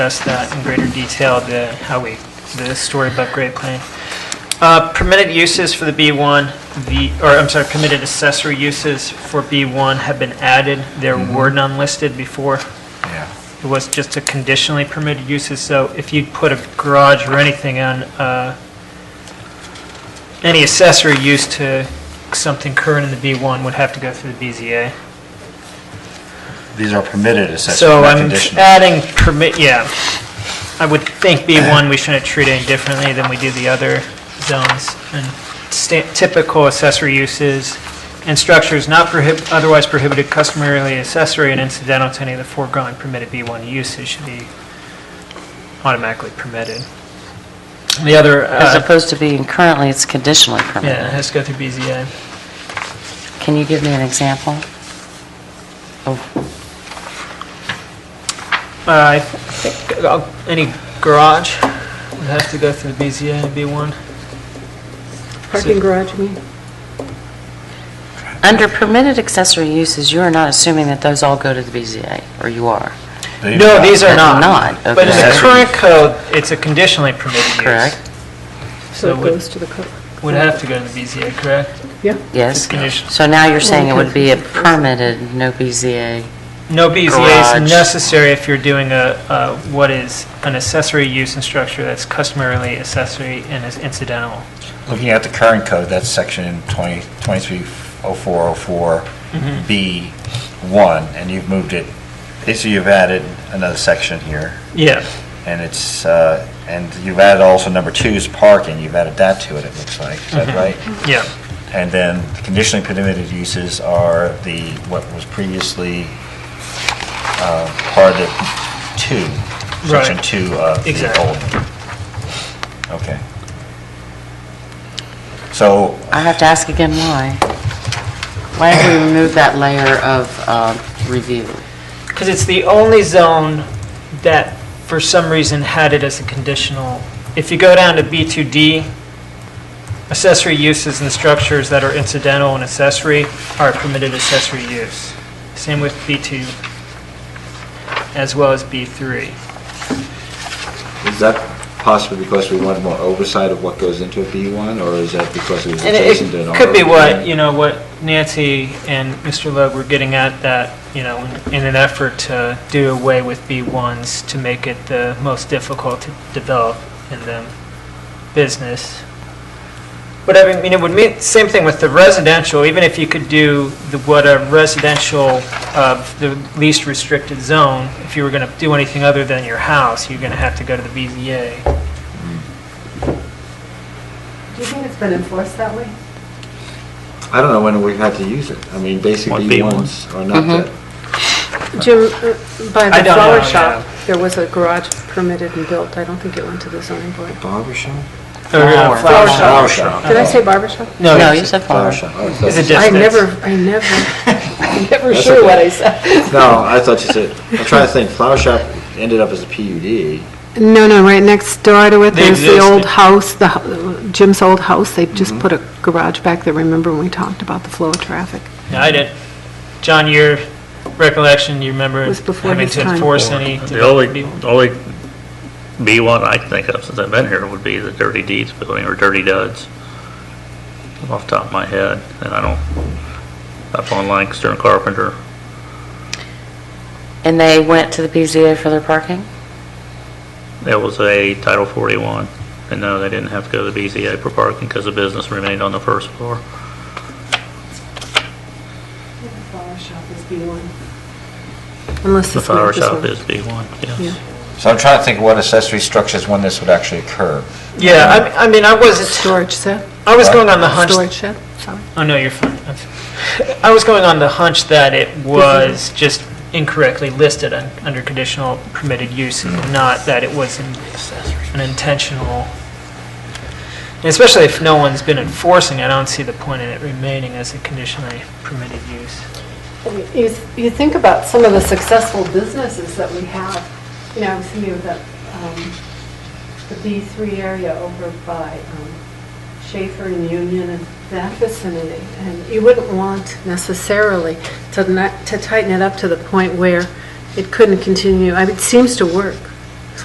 discuss that in greater detail, the, how we, the story above grade plan. Uh, Permitted uses for the B1, the, or I'm sorry, permitted accessory uses for B1 have been added. There were none listed before. Yeah. It was just a conditionally permitted uses, so if you put a garage or anything on, uh, any accessory use to something current in the B1 would have to go through the BZA. These are permitted accessories, So not I'm Uh, conditional. adding permit, yeah. I would think B1, we shouldn't treat any differently than we do the other zones. And sta- typical accessory uses and structures not prohib, otherwise prohibited customarily accessory and incidental to any of the foregoing permitted B1 uses should be automatically permitted. The other, As uh, opposed to being currently, it's conditionally yeah, it permitted. has to go through BZA. Can you give me an example? Oh, Uh, I think uh, any garage would have to go through BZA and B1. Parking garage, you mean? Under permitted accessory uses, you are not assuming that those all go to the BZA, or you are? They- No, these are They're not. not, But in the okay. current code, it's a conditionally permitted use. Correct? So So it it would- goes to the co Would have to go to the BZA, correct? Yeah, Yes? Conditional. So now you're saying it would be a Okay. permitted, no BZA? No BZA is Garage. necessary if you're doing a, a- what is an accessory use and structure that's customarily accessory and is incidental. Looking at the current code, that's section 20 230404B1, and you've moved it, basically you've added another section here, Yeah. and it's, uh, and you've added also number two is parking, you've added that to it, it looks like, is that right? Yeah. And then the conditionally permitted uses are the, what was previously uh, part of two, section Right. two of the Exactly. old. one. Okay. So, I have to ask again why. Why have we removed that layer of uh, review? Because it's the only zone that, for some reason, had it as a conditional. If you go down to B2D, accessory uses and structures that are incidental and accessory are permitted accessory use. Same with B2, as well as B3. Is that possibly because we wanted more oversight of what goes into a B1, or is that because it was And adjacent to an it R? could be what, you know, what Nancy and Mr. Loeb were getting at, that, you know, in an effort to do away with B1s, to make it the most difficult to develop in the business. But I mean, it would mean, same thing with the residential, even if you could do the, what a residential, uh, the least restricted zone, if you were going to do anything other than your house, you're going to have to go to the BZA. Do you think it's been enforced that way? I don't know when we've had to use it. I mean, basic What B1s are Mm-hmm. not that. Jim, uh, by I the don't know, flower yeah. shop, there was a garage permitted and built. I don't think it went to the zoning board. Oh. Barber shop? Or, uh, Flower. flower shop. Flower shop. Did I say barber shop? No, No, it's- you said Flower flower. shop. Oh, Is it that's- I distance? never, I never, I'm never That's sure okay. what I said. No, I thought you said, I'm trying to think, flower shop ended up as a PUD. No, no, right next door to it, They there's the old existed. house, the hu- Jim's old house. They just Mm-hmm. put a garage back there. Remember when we talked about the flow of traffic? No, I didn't. John, your recollection, you remember It was before having his to time. enforce any? The only, the only B1 I can think of since I've been here would be the Dirty Deeds Building or Dirty Duds, off the top of my head, and I don't, up on Lancaster and Carpenter. And they went to the BZA for their parking? There was a Title 41, and no, they didn't have to go to the BZA for parking because the business remained on the first floor. The flower shop is B1. Unless The it's not flower this shop one. is B1, Yeah. yes. so I'm trying to think what accessory structures when this would actually occur. Yeah, I mean- I mean, I wasn't, Storage shed? I was going on the hunch, Storage shed, sorry. oh no, you're fine. I'm fine. I was going on the hunch that it was just incorrectly listed un- under conditional permitted use, Hmm. and not that it was an an intentional, and especially if no one's been enforcing, I don't see the point in it remaining as a conditionally permitted use. You, you think about some of the successful businesses that we have, you know, I was thinking of the, um, the B3 area over by um, Schaefer and Union and that vicinity, And you wouldn't want necessarily to not, to tighten it up to the point where it couldn't continue. I mean, it seems to work.